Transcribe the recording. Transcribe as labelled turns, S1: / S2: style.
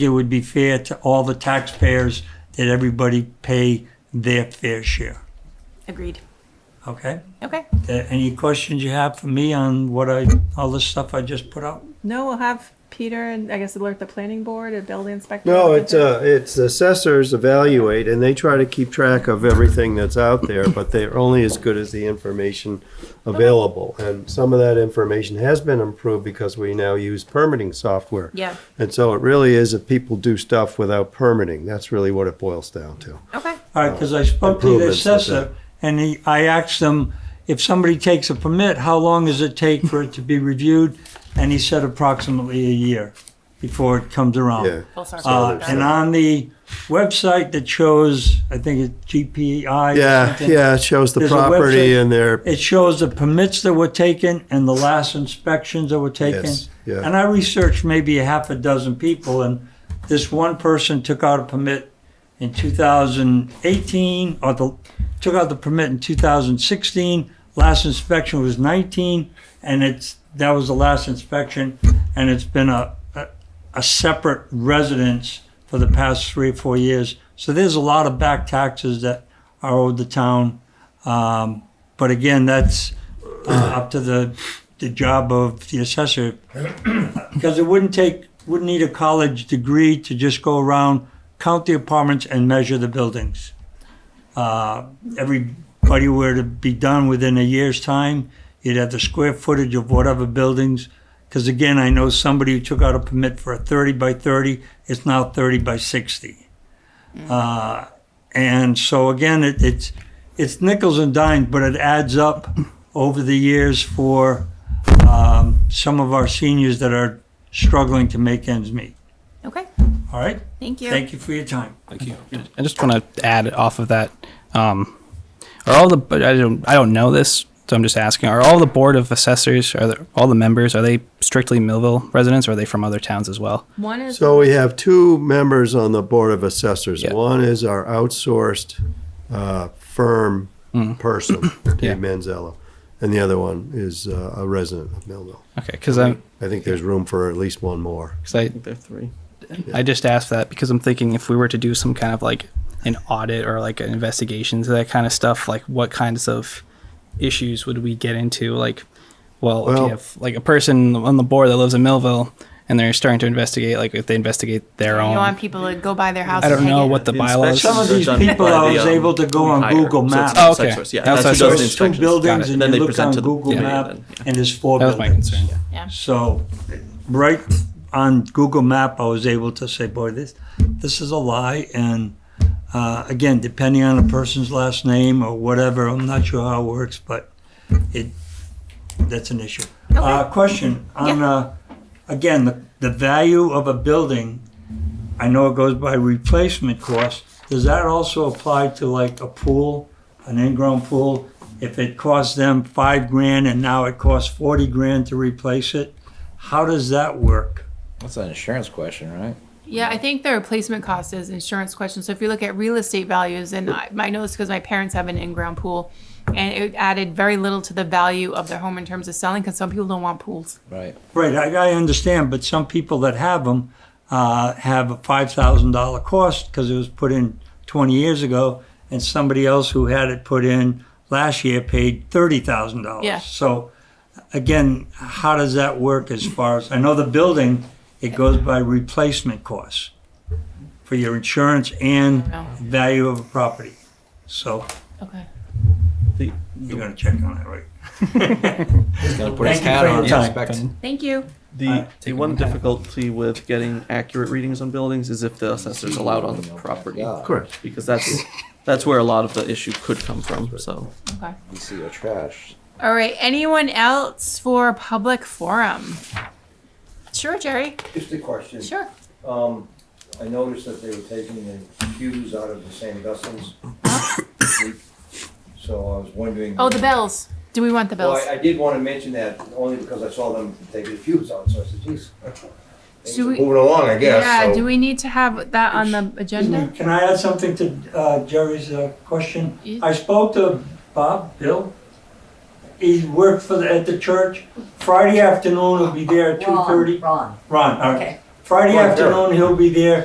S1: it would be fair to all the taxpayers that everybody pay their fair share.
S2: Agreed.
S1: Okay?
S2: Okay.
S1: Uh, Any questions you have for me on what I, all the stuff I just put out?
S2: No, we'll have Peter and I guess alert the planning board and building inspector.
S3: No, it's, uh, it's assessors evaluate, and they try to keep track of everything that's out there, but they're only as good as the information available. And some of that information has been improved because we now use permitting software.
S2: Yeah.
S3: And so it really is if people do stuff without permitting, that's really what it boils down to.
S2: Okay.
S1: All right, because I spoke to the
S3: Improvements, that's
S1: assessor, and he, I asked them, if somebody takes a permit, how long does it take for it to be reviewed? And he said approximately a year before it comes around.
S3: Yeah.
S2: Full circle.
S1: Uh,
S2: Got it.
S1: and on the website that shows, I think it's GPI. or
S3: Yeah,
S1: something,
S3: yeah, it shows the
S1: There's a
S3: property
S1: website-
S3: and their,
S1: It shows the permits that were taken and the last inspections that were taken.
S3: Yes, yeah.
S1: And I researched maybe a half a dozen people, and this one person took out a permit in 2018, or the, took out the permit in 2016. Last inspection was 19, and it's, that was the last inspection, and it's been a, a, a separate residence for the past three or four years. So there's a lot of back taxes that are owed the town. Um, but again, that's uh, up to the, the job of the assessor. Because it wouldn't take, wouldn't need a college degree to just go around, count the apartments and measure the buildings. Uh, Everybody were to be done within a year's time, you'd have the square footage of whatever buildings. Because again, I know somebody who took out a permit for a thirty by thirty, it's now thirty by sixty. Uh, And so again, it, it's, it's nickels and dimes, but it adds up over the years for um, some of our seniors that are struggling to make ends meet.
S2: Okay.
S1: All right?
S2: Thank you.
S1: Thank you for your time.
S4: Thank you. I just want to add off of that. Um, are all the but I don't I don't know this, so I'm just asking. Are all the board of assessors are the, all the members are they strictly Millville residents or are they from other towns as well?
S2: One is
S3: so we have two members on the Board of Assessors.
S4: Yeah.
S3: One is our outsourced, uh, firm person,
S4: Mm. Yeah.
S3: Dave Manzello, and the other one is uh, a resident of Millville.
S4: Okay, because I
S3: I think there's room for at least one more.
S4: because I
S5: They're three.
S4: I just asked that because I'm thinking if we were to do some kind of like an audit or like an investigation into that kind of stuff, like what kinds of issues would we get into? Like, well, if
S3: Well-
S4: you have like a person on the board that lives in Millville and they're starting to investigate, like if they investigate their
S2: You
S4: own,
S2: want people to go by their house.
S4: I
S2: and
S4: don't
S2: take
S4: know
S2: it.
S4: what the
S5: The
S4: bylaws.
S5: inspection-
S1: Some of
S5: They're
S1: these
S5: done
S1: people,
S5: by
S1: I
S5: the,
S1: was
S5: um,
S1: able to go on
S5: hire.
S1: Google
S5: So it's
S1: Maps.
S5: an
S4: Oh, okay.
S5: outsource, Yeah,
S4: That's
S5: that's who
S4: what I said.
S5: does the
S1: There was two
S5: inspections.
S1: buildings
S4: Got it.
S1: and
S5: Then
S1: you
S5: they
S1: looked
S5: present
S1: on
S5: to the-
S1: Google
S5: yeah, yeah,
S1: Map
S5: then, yeah.
S1: and there's four
S4: That was my
S1: buildings.
S4: concern.
S2: Yeah.
S1: So, right on Google Map, I was able to say, boy, this, this is a lie. And uh, again, depending on a person's last name or whatever, I'm not sure how it works, but it, that's an issue. Uh, question on, uh, again, the, the value of a building, I know it goes by replacement cost. Does that also apply to like a pool, an in-ground pool? If it cost them five grand and now it costs forty grand to replace it, how does that work?
S6: That's an insurance question, right?
S2: Yeah, I think the replacement cost is insurance question. So if you look at real estate values, and I, I know this because my parents have an in-ground pool, and it added very little to the value of their home in terms of selling because some people don't want pools.
S6: Right.
S1: Right, I, I understand, but some people that have them, uh, have a five thousand dollar cost because it was put in twenty years ago, and somebody else who had it put in last year paid thirty thousand dollars.
S2: Yeah.
S1: So, again, how does that work as far as, I know the building, it goes by replacement costs for your insurance and
S2: know.
S1: value of a property. So,
S2: Okay.
S1: you're gonna check on that, right?
S6: He's gonna put his
S1: Thank you
S6: hat
S1: for
S6: on.
S1: your
S6: and
S1: time.
S6: inspect.
S2: Thank you.
S5: The, the one difficulty with getting accurate readings on buildings is if the assessor's allowed on the property.
S6: Yeah,
S3: Correct.
S5: Because that's, that's where a lot of the issue could come from, so.
S2: Okay.
S6: You see your trash.
S2: All right. Anyone else for public forum? Sure, Jerry.
S7: Just a question.
S2: Sure.
S7: Um, I noticed that they were taking the cues out of the same vessels. So I was wondering.
S2: Oh, the bells. Do we want the
S7: Well,
S2: bells?
S7: I, I did wanna mention that only because I saw them taking the cues out, so I said, geez. Things
S2: Do
S7: are
S2: we-
S7: moving along, I guess,
S2: yeah.
S7: so-
S2: Do we need to have that on the agenda?
S1: Can I add something to uh, Jerry's uh, question?
S2: Yeah.
S1: I spoke to Bob, Bill. He worked for, the- at the church. Friday afternoon, he'll be there at two
S8: Ron,
S1: thirty.
S8: Ron,
S1: Ron, all right.
S8: okay.
S1: Friday
S7: Well, sure.
S1: afternoon, he'll be there.